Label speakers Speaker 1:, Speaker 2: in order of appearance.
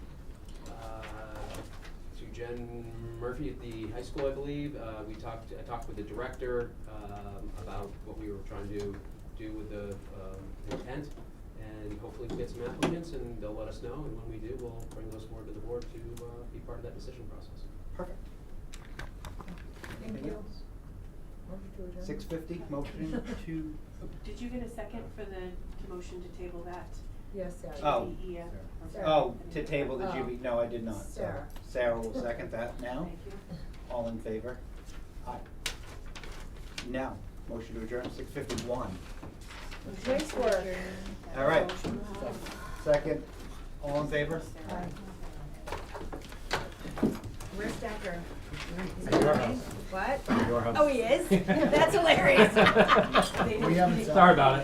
Speaker 1: Uh, Murphy at the high school, I believe. Uh, we talked, I talked with the director, um, about what we were trying to do with the, um, intent. And hopefully we get some applicants and they'll let us know, and when we do, we'll bring those forward to the board to, uh, be part of that decision process.
Speaker 2: Perfect.
Speaker 3: Thank
Speaker 2: Anything
Speaker 3: you.
Speaker 2: else? Six fifty, motion to,
Speaker 4: Did you get a second for the motion to table that? E
Speaker 3: Yes, Sarah.
Speaker 2: Oh.
Speaker 4: GBEF?
Speaker 3: Sarah.
Speaker 2: oh, to table the
Speaker 3: Oh.
Speaker 2: GB, no, I did not. So
Speaker 3: Sarah.
Speaker 2: Sarah will second that now.
Speaker 4: Thank you.
Speaker 2: All in favor? Aye. Now, motion to adjourn, six fifty-one.
Speaker 3: Nice work.
Speaker 2: All right.
Speaker 4: Motion.
Speaker 2: Second, all in favor?
Speaker 4: Sarah.
Speaker 3: Where's Decker? Is
Speaker 2: At
Speaker 3: he
Speaker 2: your
Speaker 3: coming?
Speaker 2: house.
Speaker 3: What?
Speaker 2: Your house.
Speaker 3: Oh, he is? That's hilarious.
Speaker 2: We haven't-
Speaker 1: Sorry about it.